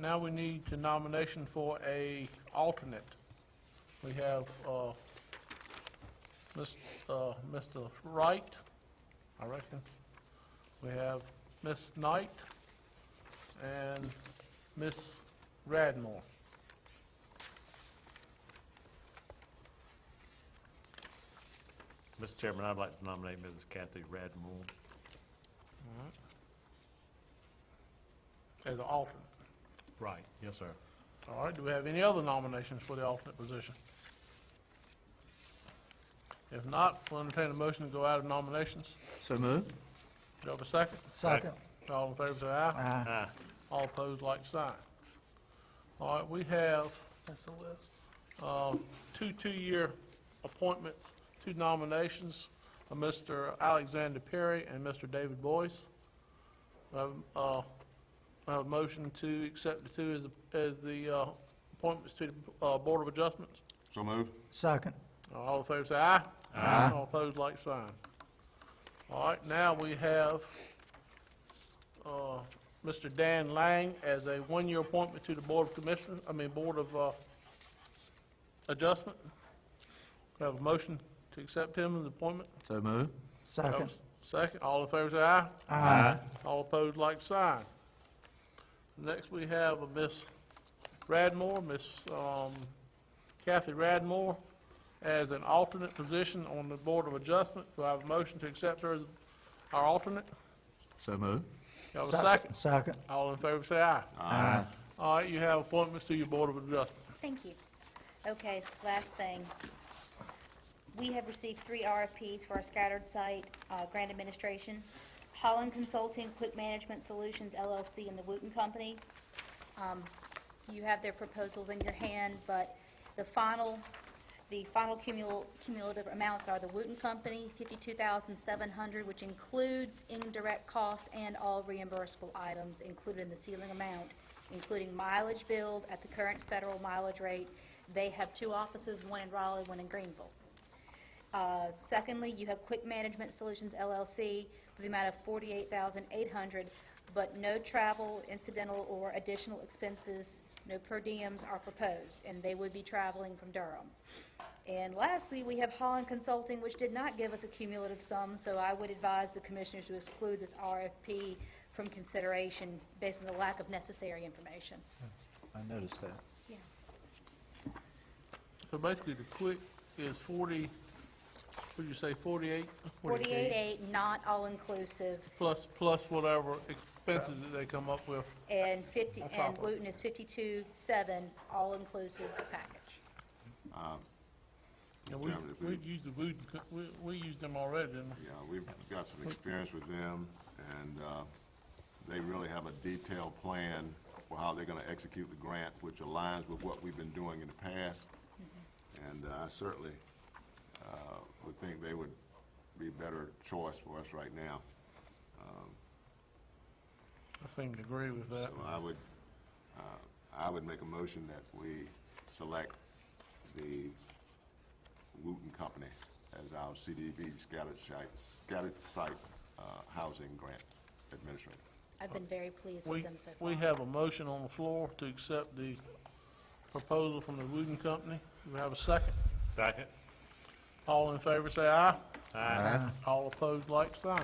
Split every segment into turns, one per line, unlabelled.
Now we need to nomination for a alternate. We have, uh, Ms., uh, Mr. Wright, I reckon. We have Ms. Knight and Ms. Radmore.
Mr. Chairman, I'd like to nominate Mrs. Kathy Radmore.
as an alternate.
Right, yes, sir.
All right, do we have any other nominations for the alternate position? If not, we'll entertain a motion to go out of nominations.
So moved.
Do you have a second?
Second.
All in favor, say aye.
Aye.
Aye.
All opposed, like sign. All right, we have,
That's the list.
uh, two two-year appointments, two nominations, uh, Mr. Alexander Perry and Mr. David Boyce. I have, uh, I have a motion to accept the two as, the- as the, uh, appointments to the, uh, Board of Adjustments.
So move.
Second.
All in favor say aye.
Aye.
All opposed, like sign. All right, now we have, uh, Mr. Dan Lang as a one-year appointment to the Board of Commissioners, I mean, Board of, uh, Adjustment. We Have a motion to accept him as appointment?
So moved.
Have a Second, all in favor say aye.
Aye.
All opposed, like sign. Next, we have a Miss Radmore, Miss um, Kathy Radmore, as an alternate position on the Board of Adjustment. Do I have a motion to accept her as our alternate?
So moved.
Do I have a second?
Second.
All in favor, say aye.
Uh,
Aye.
All right, you have appointments to your Board of Adjustment.
Thank you. Okay, last thing. We have received three RFPs for our scattered site uh, grant administration. Holland Consulting, Quick Management Solutions LLC, and the Wooten Company. Um, You have their proposals in your hand, but the final, the final cumul- cumulative amounts are the Wooten Company, 52700 which includes indirect cost and all reimbursable items included in the ceiling amount, including mileage billed at the current federal mileage rate. They have two offices, one in Raleigh, one in Greenville. Uh, Secondly, you have Quick Management Solutions LLC with the amount of 488,800, but no travel, incidental, or additional expenses, no per diems are proposed, and they would be traveling from Durham. And lastly, we have Holland Consulting, which did not give us a cumulative sum, so I would advise the commissioners to exclude this RFP from consideration based on the lack of necessary information.
I noticed that.
Yeah.
So basically, the quick is 40, what'd you say, 48?
48.8, not all-inclusive,
Plus, plus whatever expenses that they come up with.
And 50,
That's
and
awful.
Wooton is 52.7, all-inclusive package.
And we,
Yeah, if
we
we-
used the Wooten, Co- we, we used them already, didn't we?
Yeah, we've got some experience with them, and uh, they really have a detailed plan for how they're gonna execute the grant, which aligns with what we've been doing in the past. And uh, I certainly uh, would think they would be a better choice for us right now.
I seem to agree with that.
So I would, uh, I would make a motion that we select the Wooten Company as our CDB scattered site, scattered site uh, housing grant administrator.
I've been very pleased with
We,
them so far.
we have a motion on the floor to accept the proposal from the Wooten Company. Do we have a second?
Second.
All in favor, say aye.
Aye.
All opposed, like sign.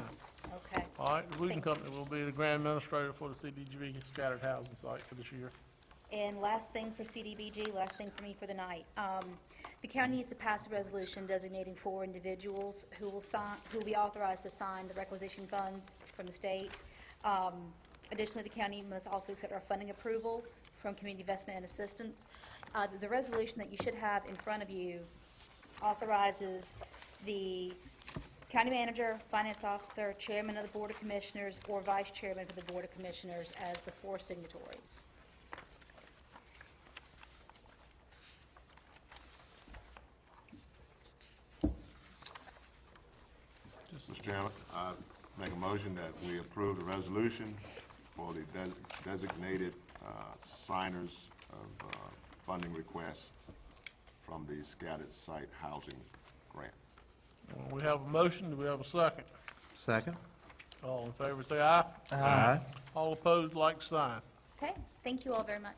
Okay,
All right, the Wooten
Thank
Company will be the grand administrator for the CDGV scattered housing site for this year.
and last thing for CDBG, last thing for me for the night. Um, The county needs to pass a resolution designating four individuals who will sign, who will be authorized to sign the requisition funds from the state. Um, Additionally, the county must also accept our funding approval from Community Investment and Assistance. Uh, The resolution that you should have in front of you authorizes the county manager, finance officer, chairman of the board of commissioners, or vice chairman of the board of commissioners as the four signatories.
Mr. Chairman, I make a motion that we approve the resolution for the des- designated uh, signers of uh, funding requests from the scattered site housing grant.
We have a motion, do we have a second?
Second.
All in favor, say aye.
Aye.
All opposed, like sign.
Okay, Okay, thank you all very much.